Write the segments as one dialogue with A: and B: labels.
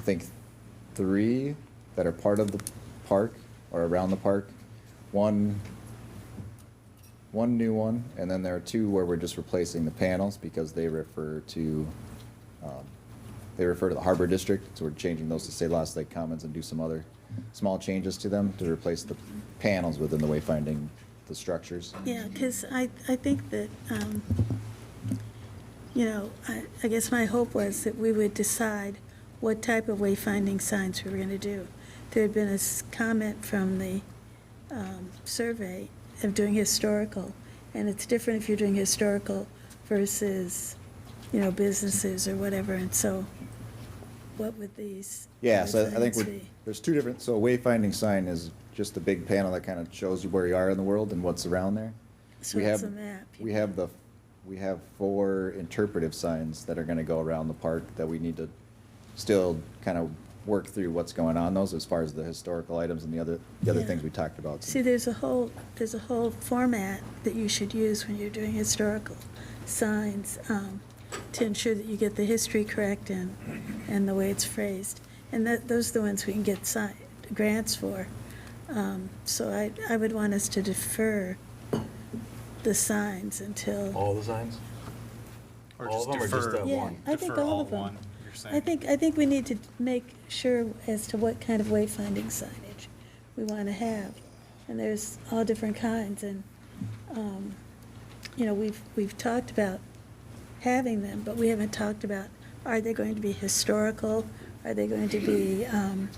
A: think, three that are part of the park or around the park. One, one new one, and then there are two where we're just replacing the panels because they refer to, um, they refer to the Harbor District, so we're changing those to say Lost Lake Commons and do some other small changes to them to replace the panels within the wayfinding, the structures.
B: Yeah, because I, I think that, um, you know, I, I guess my hope was that we would decide what type of wayfinding signs we were going to do. There had been a s- comment from the um, survey of doing historical, and it's different if you're doing historical versus, you know, businesses or whatever, and so what would these?
A: Yeah, so I think
B: signs
A: we're,
B: be?
A: there's two different, so a wayfinding sign is just a big panel that kind of shows you where you are in the world and what's around there.
B: So
A: We
B: it's
A: have
B: a map.
A: We have the, we have four interpretive signs that are gonna go around the park that we need to still kind of work through what's going on those as far as the historical items and the other, the other
B: Yeah.
A: things we talked about.
B: See, there's a whole, there's a whole format that you should use when you're doing historical signs um, to ensure that you get the history correct and, and the way it's phrased. And that, those are the ones we can get si- grants for. Um, So I, I would want us to defer the signs until,
C: All the signs?
D: Or
C: All
D: just
C: of them or just
D: defer-
C: that
B: Yeah,
C: one?
B: I think
D: defer
B: all of them.
D: one, you're saying?
B: I think, I think we need to make sure as to what kind of wayfinding signage we want to have. And there's all different kinds, and, um, you know, we've, we've talked about having them, but we haven't talked about, are they going to be historical? Are they going to be, um,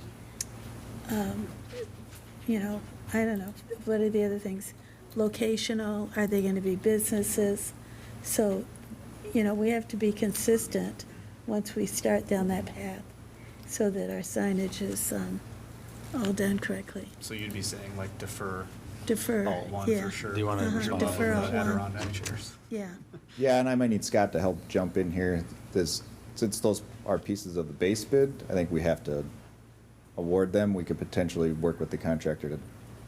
B: um, you know, I don't know, what are the other things? Locational, are they gonna be businesses? So, you know, we have to be consistent once we start down that path so that our signage is, um, all done correctly.
D: So you'd be saying like defer
B: Defer,
D: all one
B: yeah.
D: for sure?
C: Do you wanna
B: Uh-huh,
D: Jump
B: defer
D: over
B: all
D: the
B: one.
D: Adirondack chairs.
B: Yeah,
A: Yeah, and I might need Scott to help jump in here. This, since those are pieces of the base bid, I think we have to award them. We could potentially work with the contractor to,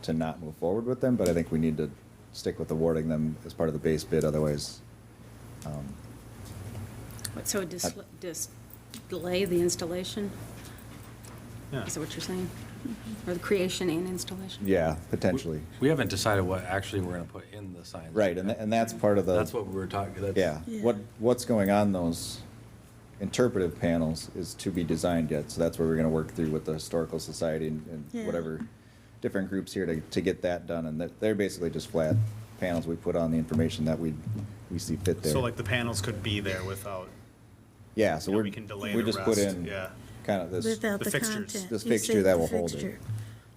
A: to not move forward with them, but I think we need to stick with awarding them as part of the base bid, otherwise. um,
E: What, So dis- dis- delay the installation?
D: Yeah.
E: Is that what you're saying? Or the creation and installation?
A: Yeah, potentially.
C: We haven't decided what actually we're gonna put in the signs.
A: Right, and, tha- and that's part of the.
C: That's what we were talking, that's.
A: Yeah,
B: Yeah.
A: what, what's going on those interpretive panels is to be designed yet, so that's where we're gonna work through with the historical society and,
B: Yeah.
A: and whatever different groups here to, to get that done, and they're, they're basically just flat panels we put on the information that we, we see fit there.
D: So like the panels could be there without,
A: Yeah, so
D: you know,
A: we're,
D: we can delay
A: we
D: the
A: just put
D: rest,
A: in
D: yeah.
A: kind of this,
B: without
D: The
B: the
D: fixtures.
B: content.
A: This
B: You
A: fixture
B: say
A: that
B: the
A: will hold it.
B: fixture.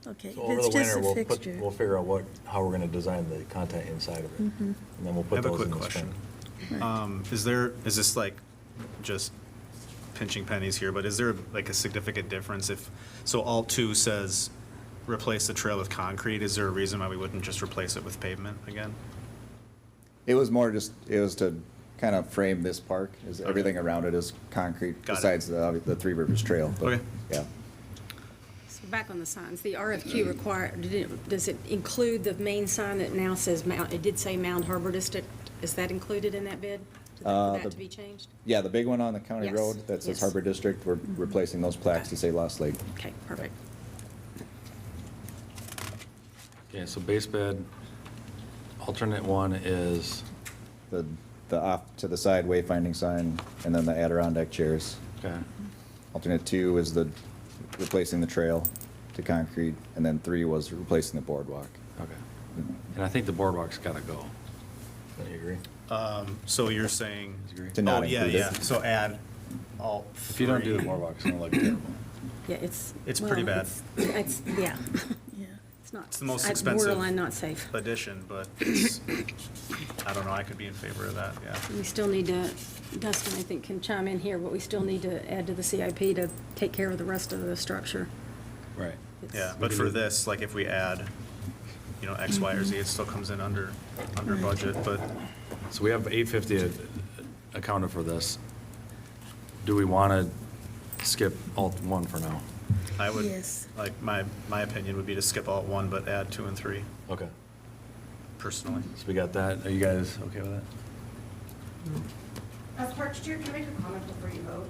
B: Okay, if
C: So over
B: it's
C: the
B: just
C: winter,
B: a
C: we'll put,
B: fixture.
C: we'll figure out what, how we're gonna design the content inside of it.
B: Mm-hmm.
C: And then we'll
D: I
C: put
D: have a
C: those in
D: quick
C: the spring.
D: question. Um, Is there, is this like just pinching pennies here, but is there like a significant difference if, so alt two says replace the trail with concrete, is there a reason why we wouldn't just replace it with pavement again?
A: it was more just, it was to kind of frame this park, is everything around it is concrete,
D: Got it.
A: besides the, the Three Rivers Trail, but,
D: Okay.
A: yeah.
E: So back on the signs, the RFQ required, did it- does it include the main sign that now says Mount, it did say Mound Harbor District? Is that included in that bid? Did
A: Uh,
E: that- For
A: the-
E: that to be changed?
A: Yeah, the big one on the county
E: Yes,
A: road that says
E: yes. Mm-hmm.
A: Harbor District, we're replacing those plaques to say Lost Lake.
E: Okay, perfect.
C: Okay, so base bid, alternate one is,
A: The, the off to the side wayfinding sign, and then the Adirondack chairs.
C: okay,
A: Alternate two is the, replacing the trail to concrete, and then three was replacing the boardwalk. Mm-hmm.
C: okay. And I think the boardwalk's gotta go. Don't you agree?
D: Um, So you're saying,
C: Disagree?
A: To
D: oh,
A: not
D: yeah,
A: include it.
D: yeah, so add alt
C: If you don't do the
D: three.
C: boardwalk, it's gonna look terrible.
E: Yeah, it's.
D: It's pretty
E: well,
D: bad.
E: It's, it's- yeah,
B: Yeah.
E: it's not.
D: It's the most
E: I-
D: expensive.
E: Borderline not safe.
D: Addition, but it's- I don't know, I could be in favor of that, yeah.
E: We still need to, Dustin, I think, can chime in here, but we still need to add to the CIP to take care of the rest of the structure.
C: Right.
E: It's-
D: Yeah, but for this, like if we add, you know, X, Y, or
E: Mm-hmm.
D: Z, it still comes in under, under budget, but
C: So we have 850 accounted for this. Do we want to skip alt one for now?
D: I would,
B: Yes.
D: like, my, my opinion would be to skip alt one, but add two and three
C: Okay.
D: personally.
C: So we got that. Are you guys okay with that?
F: Uh, Park, Chair, can I make a comment before you vote?